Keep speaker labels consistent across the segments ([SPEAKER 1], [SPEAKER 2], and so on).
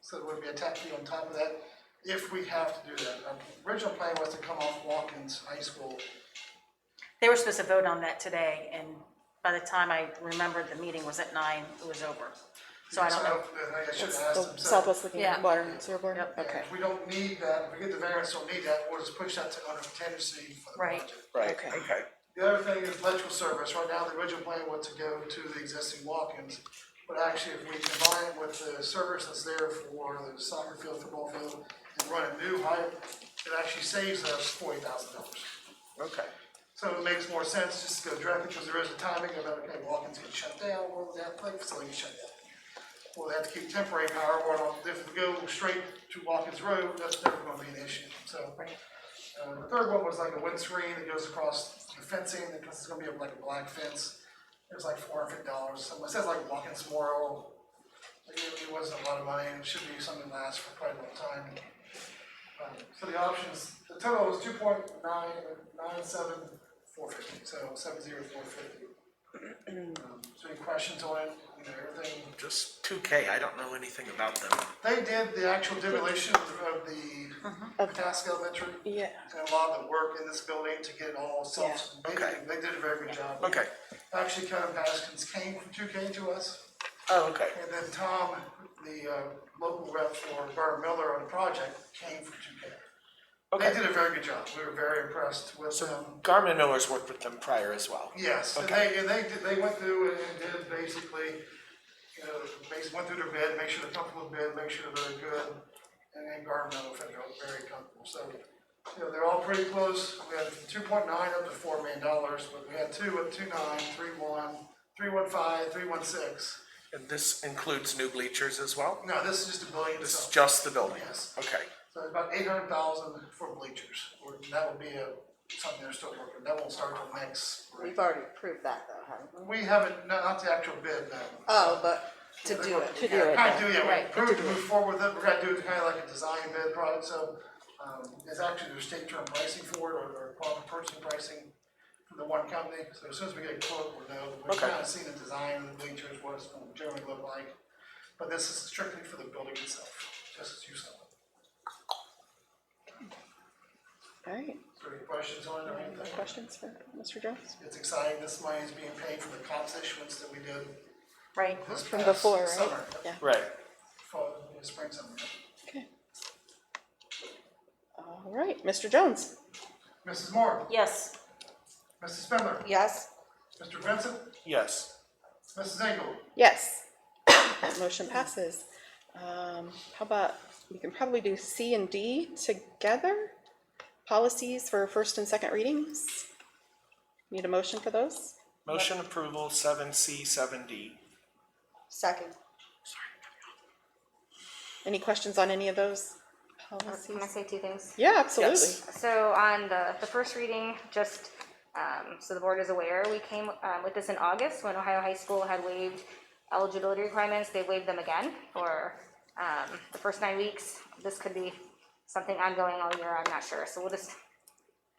[SPEAKER 1] So there would be a tap fee on top of that, if we have to do that. Our Original plan was to come off Watkins High School.
[SPEAKER 2] They were supposed to vote on that today, and by the time I remembered the meeting was at nine, it was over. So I don't know.
[SPEAKER 1] uh, I think I should
[SPEAKER 3] It's
[SPEAKER 1] have asked
[SPEAKER 3] the
[SPEAKER 1] them. So,
[SPEAKER 3] Southwest Looking
[SPEAKER 2] Yeah.
[SPEAKER 3] Water and Sewer Board?
[SPEAKER 2] Yep.
[SPEAKER 3] Okay,
[SPEAKER 1] If we don't need that, if we get the variance, don't need that, we'll just push that to under contingency for the
[SPEAKER 2] Right.
[SPEAKER 1] project.
[SPEAKER 4] Right,
[SPEAKER 3] Okay.
[SPEAKER 4] okay.
[SPEAKER 1] The other thing is electrical service. Right now, the original plan was to go to the existing walk-ins. But actually, if we combine it with the service that's there for the soccer field, football field, and run a new height, it actually saves us forty thousand dollars.
[SPEAKER 4] Okay.
[SPEAKER 1] So it makes more sense just to go directly, because there is a timing of, okay, walk-ins get shut down, or the athletic facility gets shut down. Well, they have to keep temporary power, or if we go straight to Watkins Road, that's never gonna be an issue, so. Uh, the third one was like a wind screen that goes across the fencing, because it's gonna be like a black fence. It was like four hundred dollars, so it says like Watkins Memorial. Like, It it wasn't a lot of money, and it should be something that lasts for quite a long time. Um, So the options, the total was two point nine, nine seven, four fifty, so seven zero four fifty. Um, So any questions on it, you know, everything?
[SPEAKER 4] Just two K, I don't know anything about them.
[SPEAKER 1] They did the actual demolition of
[SPEAKER 4] Mm-hmm.
[SPEAKER 1] the Potaska Elementary.
[SPEAKER 3] yeah,
[SPEAKER 1] And a lot of the work in this building to get it all self, they,
[SPEAKER 4] Okay.
[SPEAKER 1] they did a very good job.
[SPEAKER 4] Okay.
[SPEAKER 1] Actually, Kevin Baskins came from two K to us,
[SPEAKER 4] Oh, okay.
[SPEAKER 1] and then Tom, the, uh, local rep for Burr Miller on the project, came from two K. They
[SPEAKER 4] Okay.
[SPEAKER 1] did a very good job, we were very impressed with them.
[SPEAKER 4] Garmin Miller's worked with them prior as well.
[SPEAKER 1] Yes, and
[SPEAKER 4] Okay.
[SPEAKER 1] they, and they, did- they went through and did basically, you know, basically went through their bid, make sure they're comfortable with bid, make sure they're good. And then environmental federal, very comfortable, so, you know, they're all pretty close, we had two point nine up to four million dollars, but we had two at two nine, three one, three one five, three one six.
[SPEAKER 4] And this includes new bleachers as well?
[SPEAKER 1] No, this is just a billion
[SPEAKER 4] This is
[SPEAKER 1] itself,
[SPEAKER 4] just the building?
[SPEAKER 1] Yes.
[SPEAKER 4] Okay,
[SPEAKER 1] so it's about eight hundred thousand for bleachers, or that would be a, something they're still working, that won't start till next. spring.
[SPEAKER 5] We've already approved that though, haven't we?
[SPEAKER 1] We haven't, not, not the actual bid, no.
[SPEAKER 5] Oh, but to do it.
[SPEAKER 3] do it.
[SPEAKER 1] Kind of do, yeah, we
[SPEAKER 5] Right,
[SPEAKER 1] approved to move forward with it, we're gonna do it kind of like a design bid product, so, um, it's actually there's state term pricing for it, or, or quantum purchasing pricing for the one company, so as soon as we get a quote, we'll know, we've
[SPEAKER 4] Okay.
[SPEAKER 1] kind of seen the design of the bleachers, what it's gonna generally look like. But this is strictly for the building itself, just as you saw.
[SPEAKER 3] alright,
[SPEAKER 1] So any questions on it or anything?
[SPEAKER 3] questions for Mr. Jones?
[SPEAKER 1] It's exciting, this money is being paid for the cops issuance that we did
[SPEAKER 2] Right,
[SPEAKER 1] this
[SPEAKER 3] From before,
[SPEAKER 1] past summer.
[SPEAKER 3] right? Yeah,
[SPEAKER 4] right.
[SPEAKER 1] Fall, spring, summer.
[SPEAKER 3] okay. Alright, Mr. Jones?
[SPEAKER 1] Mrs. Moore,
[SPEAKER 2] yes,
[SPEAKER 1] Mrs. Spindler,
[SPEAKER 5] Yes,
[SPEAKER 1] Mr. Vincent,
[SPEAKER 4] Yes.
[SPEAKER 1] Mrs. Engel.
[SPEAKER 3] Yes. That motion passes. Um, how about, we can probably do C and D together? Policies for first and second readings? Need a motion for those?
[SPEAKER 4] Motion approval seven C, seven D.
[SPEAKER 5] second.
[SPEAKER 3] Any questions on any of those
[SPEAKER 6] Can I
[SPEAKER 3] policies?
[SPEAKER 6] say two things?
[SPEAKER 3] Yeah, absolutely.
[SPEAKER 6] So on the, the first reading, just, um, so the board is aware, we came, um, with this in August when Ohio High School had waived eligibility requirements. They waived them again for, um, the first nine weeks. This could be something ongoing all year, I'm not sure. So we'll just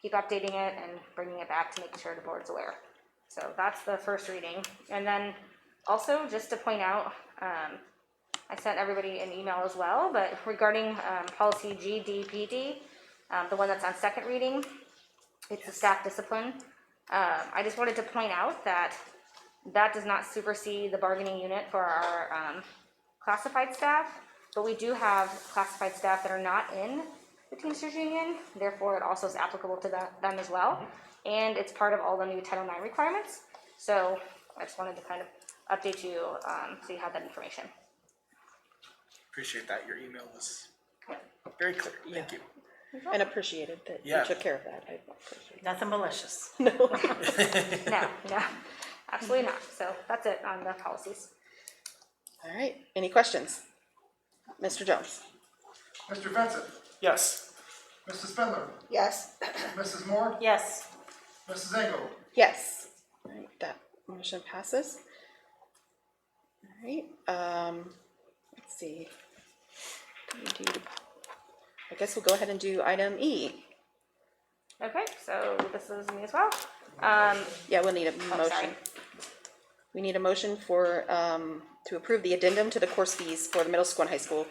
[SPEAKER 6] keep updating it and bringing it back to make sure the board's aware. So that's the first reading. And then also, just to point out, um, I sent everybody an email as well, but regarding um, policy GDPD, um, the one that's on second reading, it's a staff discipline. Um, I just wanted to point out that that does not supersede the bargaining unit for our um, classified staff, but we do have classified staff that are not in the Teamsters Union, therefore it also is applicable to that, them as well. And it's part of all the new Title IX requirements, so I just wanted to kind of update you, um, so you have that information.
[SPEAKER 4] Appreciate that. Your email was very clear. Thank you.
[SPEAKER 3] And appreciated that you
[SPEAKER 4] Yeah.
[SPEAKER 3] took care of that. I appreciate
[SPEAKER 2] nothing malicious.
[SPEAKER 6] No, no, absolutely not. So that's it on the policies.
[SPEAKER 3] it. All right, any questions? Mr. Jones?
[SPEAKER 1] Mr. Vincent,
[SPEAKER 4] Yes.
[SPEAKER 1] Mrs. Spindler,
[SPEAKER 5] Yes,
[SPEAKER 1] Mrs. Moore,
[SPEAKER 2] Yes,
[SPEAKER 1] Mrs. Engel.
[SPEAKER 3] Yes. All right, that motion passes. All right, um, let's see. Indeed. I guess we'll go ahead and do item E.
[SPEAKER 6] Okay, so this is me as well. Um,
[SPEAKER 3] Yeah, we'll need a
[SPEAKER 6] oh, sorry.
[SPEAKER 3] motion. We need a motion for, um, to approve the addendum to the course fees for the middle school and high school